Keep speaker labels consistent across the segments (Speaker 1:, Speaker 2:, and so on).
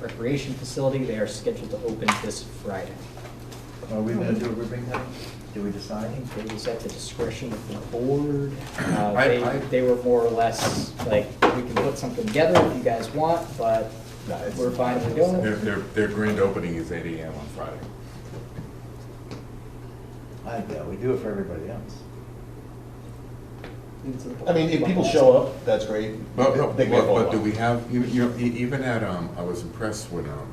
Speaker 1: recreation facility. They are scheduled to open this Friday.
Speaker 2: Are we gonna do a ribbon cutting? Did we decide?
Speaker 1: It was at the discretion of the board. Uh,
Speaker 2: I-
Speaker 1: They,
Speaker 2: I-
Speaker 1: they were more or less like, we can put something together if you guys want, but
Speaker 2: No, it's-
Speaker 1: we're fine with doing
Speaker 3: Their,
Speaker 1: it.
Speaker 3: their, their grand opening is eight AM on Friday.
Speaker 2: I, yeah, we do it for everybody else.
Speaker 4: I mean, if people show up, that's great.
Speaker 3: But, but,
Speaker 4: They can
Speaker 3: but-
Speaker 4: follow
Speaker 3: but do
Speaker 4: up.
Speaker 3: we have, you, you know, e- even at, um, I was impressed when, um,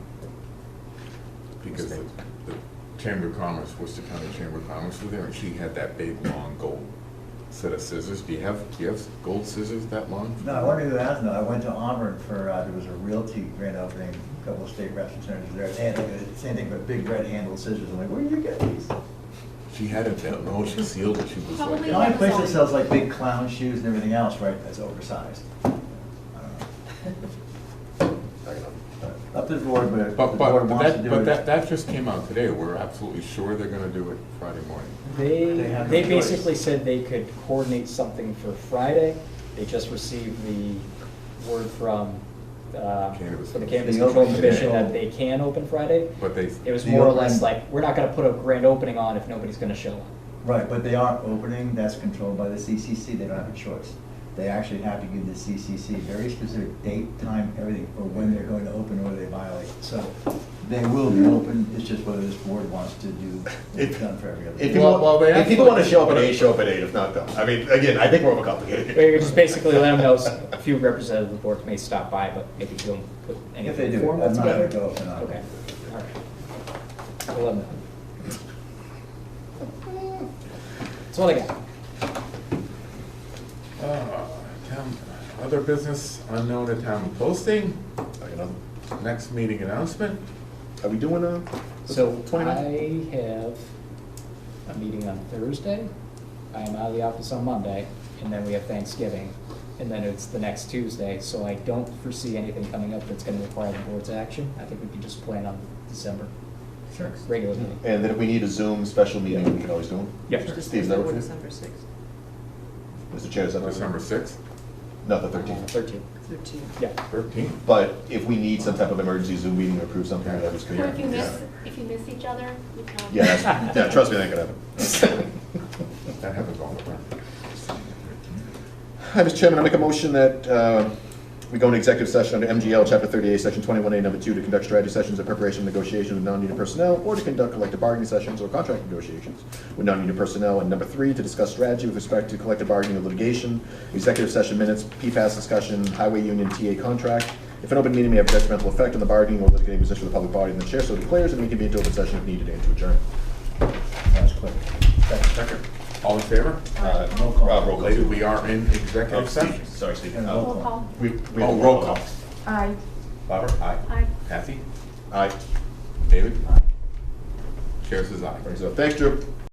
Speaker 3: because the, the Chamber of Commerce, Worcester County Chamber of Commerce was there, and she had that big, long gold set of scissors. Do you have, do you have gold scissors that long?
Speaker 2: No, I wanted to ask, no, I went to Auburn for, uh, there was a realty grand opening, a couple of state representatives there, and they had the same thing, but big red handled scissors, I'm like, where do you get these?
Speaker 3: She had it, that- no, she sealed it, she was like.
Speaker 2: The only place that sells like big clown shoes and everything else, right, that's oversized. I don't know. But Up to the board, but if the
Speaker 3: But, but,
Speaker 2: board
Speaker 3: but
Speaker 2: wants to
Speaker 3: that,
Speaker 2: do
Speaker 3: but that,
Speaker 2: it.
Speaker 3: that just came out today, we're absolutely sure they're gonna do it Friday morning.
Speaker 1: They,
Speaker 2: They have no
Speaker 1: they
Speaker 2: choice.
Speaker 1: basically said they could coordinate something for Friday. They just received the word from, uh,
Speaker 3: Cannabis
Speaker 1: from the
Speaker 3: Control.
Speaker 1: Cannabis
Speaker 2: The
Speaker 1: Control
Speaker 2: opening
Speaker 1: Commission that
Speaker 2: control.
Speaker 1: they can open Friday.
Speaker 3: But they,
Speaker 1: It was
Speaker 2: The
Speaker 1: more or
Speaker 2: opening-
Speaker 1: less like, we're not gonna put a grand opening on if nobody's gonna show up.
Speaker 2: Right, but they are opening, that's controlled by the CCC, they don't have a choice. They actually have to give the CCC very specific date, time, everything, for when they're going to open or they violate. So they will be open, it's just whether this board wants to do, it's done for every
Speaker 4: If
Speaker 2: other.
Speaker 4: people,
Speaker 3: Well, well, they
Speaker 4: if people
Speaker 3: actually-
Speaker 4: wanna show up at eight, show up at eight, if not, don't. I mean, again, I think we're overcomplicated.
Speaker 1: But you just basically let them know s- a few representatives of the board may stop by, but maybe don't put anything.
Speaker 2: If they do,
Speaker 1: formal
Speaker 2: I'm not gonna
Speaker 1: together.
Speaker 2: go if they're not.
Speaker 1: Okay, all right. We'll let them know. That's all I got.
Speaker 3: Uh, town- Other business unknown at town posting, next meeting announcement.
Speaker 4: Are we doing a?
Speaker 1: So
Speaker 4: 29?
Speaker 1: I have a meeting on Thursday. I am out of the office on Monday, and then we have Thanksgiving, and then it's the next Tuesday. So I don't foresee anything coming up that's gonna require the board's action. I think we can just plan on December,
Speaker 2: Sure.
Speaker 1: regular meeting.
Speaker 4: And then if we need a Zoom special meeting, we can always do one.
Speaker 1: Yeah.
Speaker 4: Steve, does that work for you?
Speaker 5: December sixth,
Speaker 4: Mr. Chair, is that?
Speaker 3: December sixth,
Speaker 4: Not the thirteenth.
Speaker 1: Thirteen,
Speaker 5: thirteen.
Speaker 1: yeah.
Speaker 3: thirteenth.
Speaker 4: But if we need some type of emergency Zoom meeting to approve something, that was.
Speaker 6: Or if you miss, if you miss each other, you can.
Speaker 4: Yeah, that's- yeah, trust me, that could happen.
Speaker 3: That happens all the time.
Speaker 4: Hi, Mr. Chairman, I make a motion that uh, we go into executive session under MGL, Chapter 38, Section 21A, Number 2, to conduct strategy sessions in preparation of negotiations with non-union personnel, or to conduct collective bargaining sessions or contract negotiations with non-union personnel, and number 3, to discuss strategy with respect to collective bargaining or litigation, executive session minutes, PFAS discussion, highway union TA contract. If an open meeting may have detrimental effect on the bargaining or litigating position of the public body, then the chair so declares, and we can be into open session if needed and to adjourn.
Speaker 2: That's quick.
Speaker 3: Second. All in favor?
Speaker 4: Uh,
Speaker 2: Roll call.
Speaker 4: Rob, roll call.
Speaker 3: Lady, we are in
Speaker 4: Oh,
Speaker 3: executive
Speaker 4: Steve,
Speaker 3: session.
Speaker 4: Sorry, Steve.
Speaker 2: And
Speaker 4: Uh,
Speaker 2: roll
Speaker 6: Roll call.
Speaker 4: We, we.
Speaker 3: Oh, roll call.
Speaker 5: Aye.
Speaker 4: Barbara? Aye.
Speaker 6: Aye.
Speaker 3: Kathy?
Speaker 4: Aye.
Speaker 3: David? Chair says aye.
Speaker 4: So, thanks, Drew.